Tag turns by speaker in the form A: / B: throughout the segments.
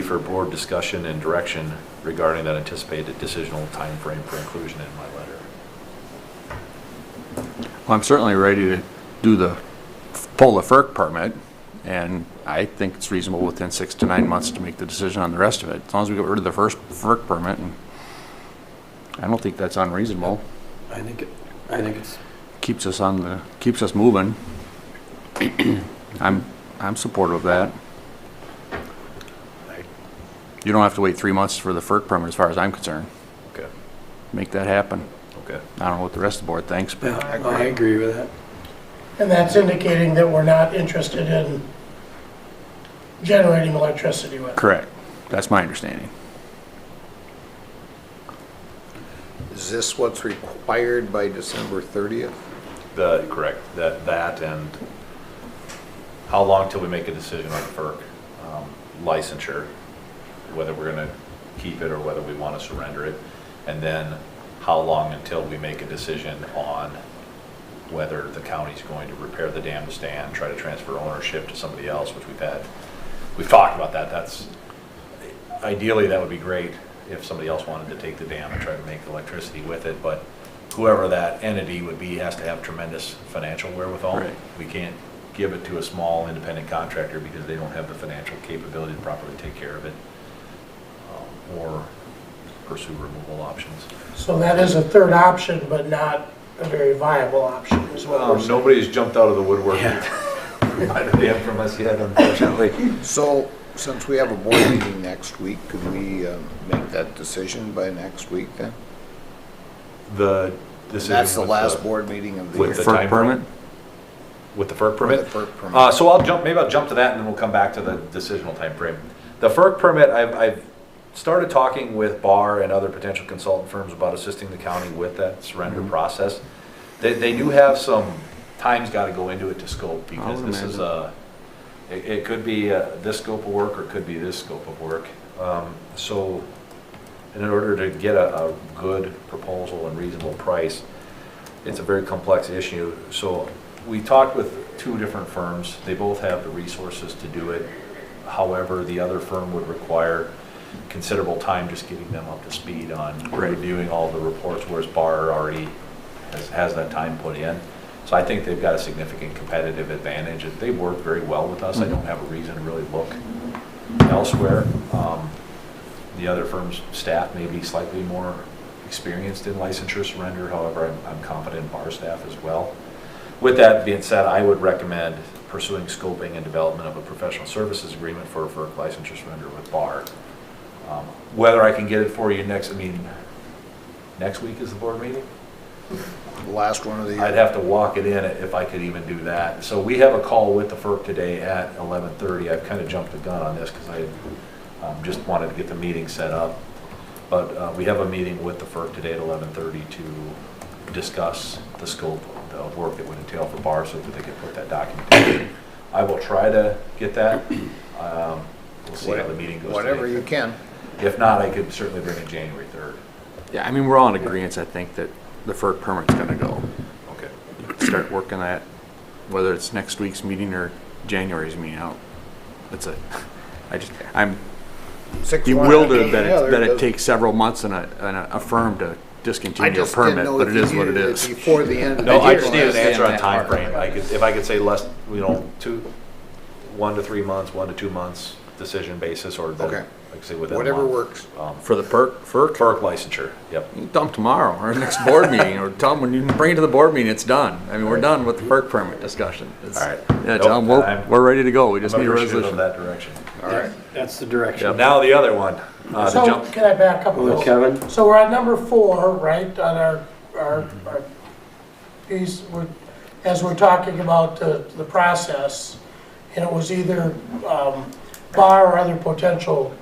A: for board discussion and direction regarding that anticipated decisional timeframe for inclusion in my letter.
B: Well, I'm certainly ready to do the, pull the FERC permit, and I think it's reasonable within six to nine months to make the decision on the rest of it, as long as we get rid of the first FERC permit. and I don't think that's unreasonable.
C: I think, it- I think it's,
B: Keeps us on the, keeps us moving. I'm, I'm supportive of that. You don't have to wait three months for the FERC permit, as far as I'm concerned.
A: Okay,
B: Make that happen.
A: okay.
B: I don't know what the rest of the board thinks, but
C: yeah, I agree with that.
D: And that's indicating that we're not interested in generating electricity with. it.
B: Correct. That's my understanding.
E: Is this what's required by December 30th?
A: The, correct, that, that and how long till we make a decision on FERC um, licensure, whether we're gonna keep it or whether we wanna surrender it. And then how long until we make a decision on whether the county's going to repair the dam to stand, try to transfer ownership to somebody else, which we've had. We've talked about that, that's, ideally, that would be great if somebody else wanted to take the dam and try to make electricity with it, but whoever that entity would be has to have tremendous financial wherewithal.
B: Right.
A: We can't give it to a small independent contractor because they don't have the financial capability to properly take care of it um, or pursue removal options.
D: So that is a third option, but not a very viable option as well.
A: Um, Nobody's jumped out of the woodwork. I don't have from us yet, unfortunately.
E: So, since we have a board meeting next week, could we um, make that decision by next week then?
A: The decision
E: That's the
A: with
E: last board meeting of the
A: with
E: year.
A: The time
B: FERC permit?
A: With the FERC permit?
E: With the FERC permit.
A: Uh, so I'll jump, maybe I'll jump to that and then we'll come back to the decisional timeframe. The FERC permit, I've, I've started talking with Barr and other potential consultant firms about assisting the county with that surrender
B: Mm-hmm.
A: process. They, they do have some, time's gotta go into it to scope because
B: would
A: this is
B: imagine.
A: a, it, it could be uh, this scope of work or it could be this scope of work. Um, so in order to get a, a good proposal and reasonable price, it's a very complex issue. So we talked with two different firms. They both have the resources to do it. However, the other firm would require considerable time just getting them up to speed on
B: Right.
A: reviewing all the reports, whereas Barr already has, has that time put in. So I think they've got a significant competitive advantage. and They work very well with us. I don't have a reason to really look elsewhere. Um, the other firm's staff may be slightly more experienced in licensure surrender, however, I'm- I'm confident in bar staff as well. With that being said, I would recommend pursuing scoping and development of a professional services agreement for, for licensure surrender with bar. Um, Whether I can get it for you next, I mean, next week is the board meeting?
B: Uh,
E: The last one of the
A: I'd
E: year.
A: have to walk it in if I could even do that. So we have a call with the FERC today at 11:30. I've kind of jumped the gun on this because I um, just wanted to get the meeting set up. But uh, we have a meeting with the FERC today at 11:30 to discuss the scope of the work that would entail for BAR so that they could put that documentation. I will try to get that. Um, We'll see how the meeting goes.
E: Whatever
A: today.
E: you can.
A: If not, I could certainly bring it January 3rd.
B: Yeah, I mean, we're all in agreement, I think, that the FERC permit's gonna go.
A: Okay.
B: Start working that, whether it's next week's meeting or January's meeting out. It's a, I just, I'm
E: Six one after
B: bewildered that
E: the
B: it,
E: other
B: that it
E: doesn't-
B: takes several months and a, and a firm to
E: I
B: discontinue a
E: just didn't
B: permit,
E: know
B: but
E: if
B: it
E: you
B: is what it
E: needed
B: is.
E: Before the end of the
A: No,
E: year.
A: I just need an answer on
E: time
A: timeframe. I could, if I could say less, you know, two, one to three months, one to two months decision basis, or the-
E: Okay.
A: like I say within a
E: Whatever
A: month.
E: works.
A: Um,
B: For the perk, FERC,
A: FERC licensure, yep.
B: you can dump tomorrow or next board meeting, or tell them when you bring it to the board meeting, it's done. I mean, we're done with the FERC permit discussion. It's-
A: All right.
B: Yeah, tell them,
A: Nope,
B: we're,
A: I'm-
B: we're ready to go. We
A: I'm
B: just need a
A: appreciative of
B: resolution.
A: that direction.
E: All right.
C: That's the direction.
A: Now the other one, uh, the
D: So,
A: jump,
D: can I back up a
C: Hello,
D: little?
C: Kevin.
D: So we're at number four, right, on our, our, our piece, we're, as we're talking about the, the process, and it was either, um, Bar or other potential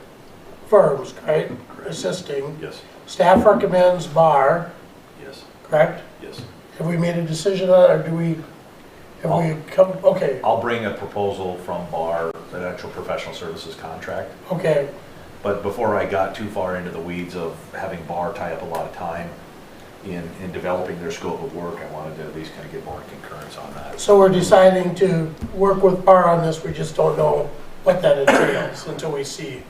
D: firms, right, assisting.
A: yes,
D: Staff recommends Bar,
A: yes,
D: correct?
A: yes.
D: Have we made a decision on, it, or do we, have we come, okay,
A: I'll bring a proposal from our, an actual professional services contract.
D: okay,
A: But before I got too far into the weeds of having Bar tie up a lot of time in, in developing their scope of work, I wanted to at least kind of get more concurrence on that.
D: so we're deciding to work with Bar on this, we just don't know what that entails until we see.